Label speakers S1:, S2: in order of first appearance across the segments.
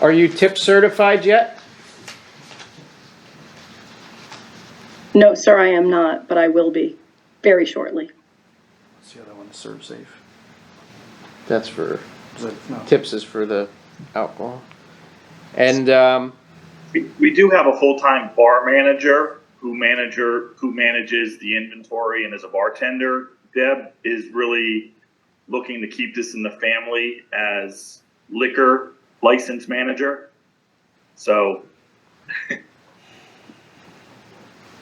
S1: Are you tip certified yet?
S2: No, sir, I am not, but I will be very shortly.
S3: What's the other one, serve safe?
S1: That's for,
S3: Is that- no.
S1: tips is for the alcohol. And, um,
S4: We- We do have a full-time bar manager who manager, who manages the inventory and is a bartender. Deb is really looking to keep this in the family as liquor license manager. So.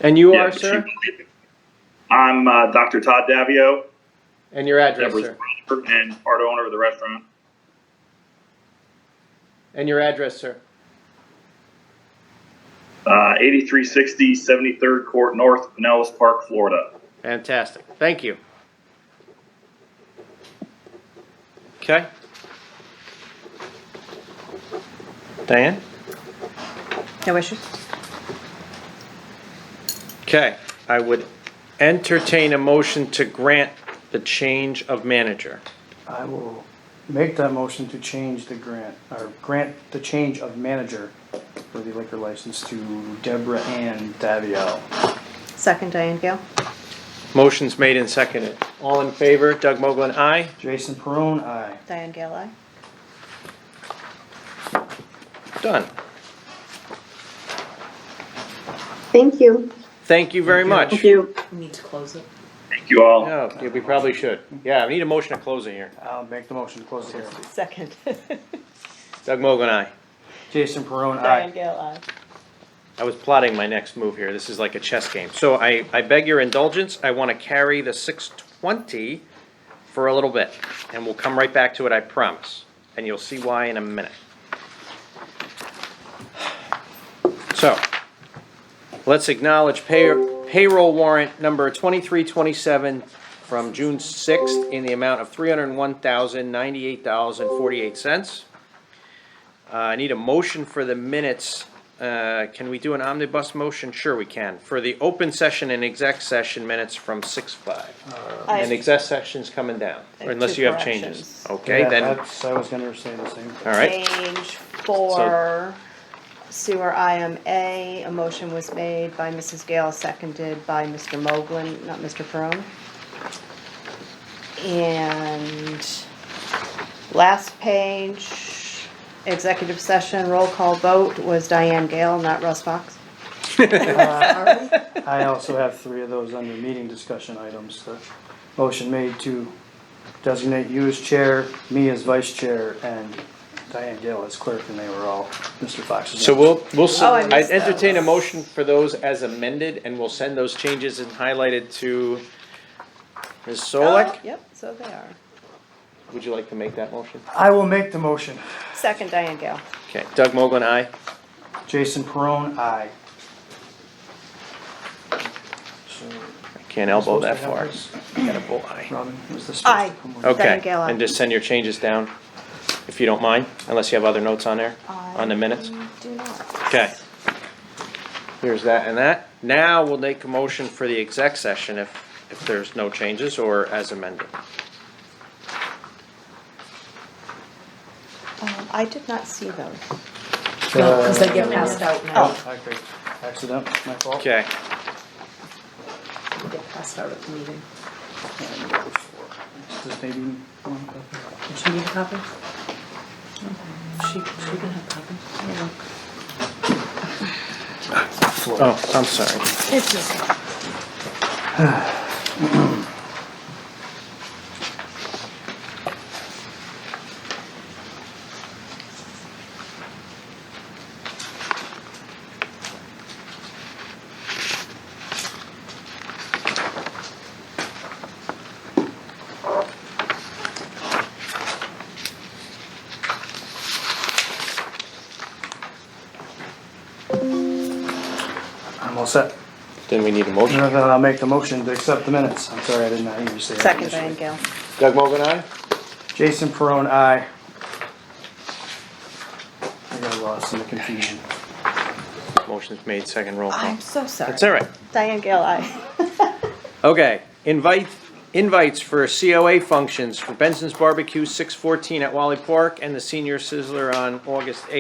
S1: and you
S4: yeah,
S1: are,
S4: but
S1: sir?
S4: she- I'm uh, Dr. Todd Davio,
S1: And your address,
S4: Deborah's
S1: sir?
S4: brother and part owner of the restaurant.
S1: And your address, sir?
S4: Uh, 8360 73rd Court North, Pinellas Park, Florida.
S1: Fantastic, thank you. Okay. Diane?
S5: No issues?
S1: Okay, I would entertain a motion to grant the change of manager.
S3: I will make that motion to change the grant, or grant the change of manager for the liquor license to Deborah Ann Davio.
S5: Second, Diane Gale.
S1: Motion's made and seconded. All in favor, Doug Mogul, aye.
S3: Jason Perone, aye.
S5: Diane Gale, aye.
S1: Done.
S6: Thank you.
S1: Thank you very much.
S2: Thank you.
S7: We need to close it.
S4: Thank you all.
S1: No, yeah, we probably should. Yeah, we need a motion to close it here.
S3: I'll make the motion to close the hearing.
S5: Second.
S1: Doug Mogul, aye.
S3: Jason Perone,
S5: Diane
S3: aye.
S5: Gale, aye.
S1: I was plotting my next move here. This is like a chess game. So I, I beg your indulgence. I want to carry the 620 for a little bit, and we'll come right back to it, I promise. And you'll see why in a minute. So, let's acknowledge pay, payroll warrant number 2327 from June 6th in the amount of $301,098.48. Uh, I need a motion for the minutes. Uh, Can we do an omnibus motion? Sure we can. For the open session and exec session minutes from six five.
S5: I
S1: And
S5: have
S1: exec section's coming down,
S5: I have
S1: unless
S5: two
S1: you have changes.
S5: corrections.
S1: Okay,
S3: Yeah,
S1: then, all
S3: that's- I was gonna say the same.
S1: right.
S5: change for sewer IMA. A motion was made by Mrs. Gale, seconded by Mr. Moglen, not Mr. Ferone. And last page, executive session, roll call vote was Diane Gale, not Russ Fox.
S3: I also have three of those under meeting discussion items. The motion made to designate you as chair, me as vice chair, and Diane Gale as clerk, and they were all Mr. Fox's.
S1: So we'll, we'll, s-
S5: Oh, I
S1: I
S5: missed
S1: entertain a
S5: those.
S1: motion for those as amended, and we'll send those changes and highlighted to Ms. Solek.
S5: Oh, Yep, so they are.
S1: Would you like to make that motion?
S3: I will make the motion.
S5: Second, Diane Gale.
S1: Okay, Doug Mogul, aye.
S3: Jason Perone, aye. So,
S1: I Can't elbow that
S3: Supposed
S1: far.
S3: to have this?
S1: Got a bull eye.
S3: Robin, was this? supposed to
S5: Aye.
S3: come with-
S1: Okay,
S5: Diane Gale, aye.
S1: and just send your changes down, if you don't mind, unless you have other notes on there, on the minutes.
S5: Do not.
S1: Okay. Here's that and that. Now we'll make a motion for the exec session if, if there's no changes or as amended.
S5: Um, I did not see those.
S7: No, because
S5: Uh,
S7: they get passed out now.
S3: Oh, I agree. Accident, my fault.
S1: Okay,
S7: They get passed out at the meeting.
S3: Does maybe one copy?
S7: Did she need a copy? Okay. She, she can have a copy. Here, look.
S1: oh, I'm sorry.
S7: It's okay.
S3: I'm all set.
S1: Then we need a motion.
S3: Then I'll make the motion to accept the minutes. I'm sorry, I did not hear you say that.
S5: Second,
S3: initially.
S5: Diane Gale.
S1: Doug Mogul, aye?
S3: Jason Perone, aye. I got lost in the confusion.
S1: Motion's made, second roll call.
S5: I'm so sorry.
S1: That's all right.
S5: Diane Gale, aye.
S1: Okay, invite, invites for COA functions for Benson's Barbecue, 614 at Wally Park, and the Senior Sizzler on August 8th.